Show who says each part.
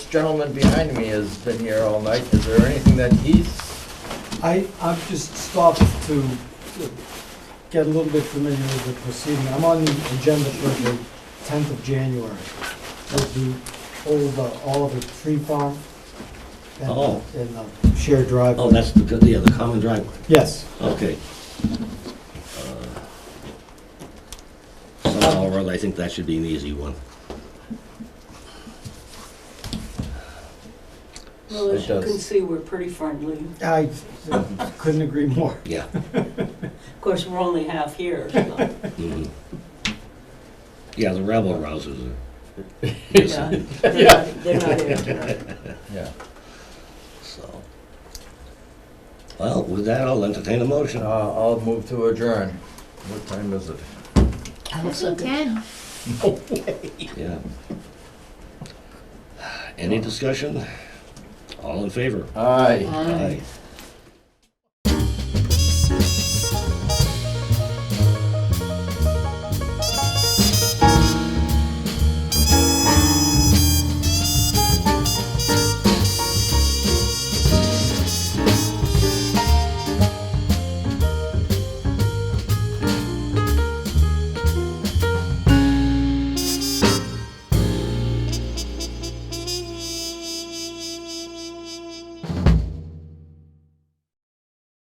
Speaker 1: gentleman behind me has been here all night. Is there anything that he's,
Speaker 2: I, I've just stopped to get a little bit familiar with the proceeding. I'm on the agenda for the tenth of January with the old uh, Oliver Tree Farm. and-
Speaker 3: Oh.
Speaker 2: And the shared driveway.
Speaker 3: Oh, that's the, good- yeah, the common driveway,
Speaker 2: Yes,
Speaker 3: okay. Uh, Somehow or other, I think that should be an easy one.
Speaker 4: Well,
Speaker 1: It
Speaker 4: as you
Speaker 1: does.
Speaker 4: can see, we're pretty friendly.
Speaker 2: I couldn't agree more.
Speaker 3: Yeah.
Speaker 4: Of course, we're only half here, so,
Speaker 3: mhm. Yeah, the rebel rousers are.
Speaker 4: yeah. They're not- they're not here tonight.
Speaker 1: yeah.
Speaker 3: So. Well, with that, I'll entertain a motion.
Speaker 1: Uh, I'll move to adjourn. What time is it?
Speaker 5: Ten.
Speaker 3: Yeah. Any discussion? All in favor?
Speaker 1: Aye.
Speaker 3: Aye.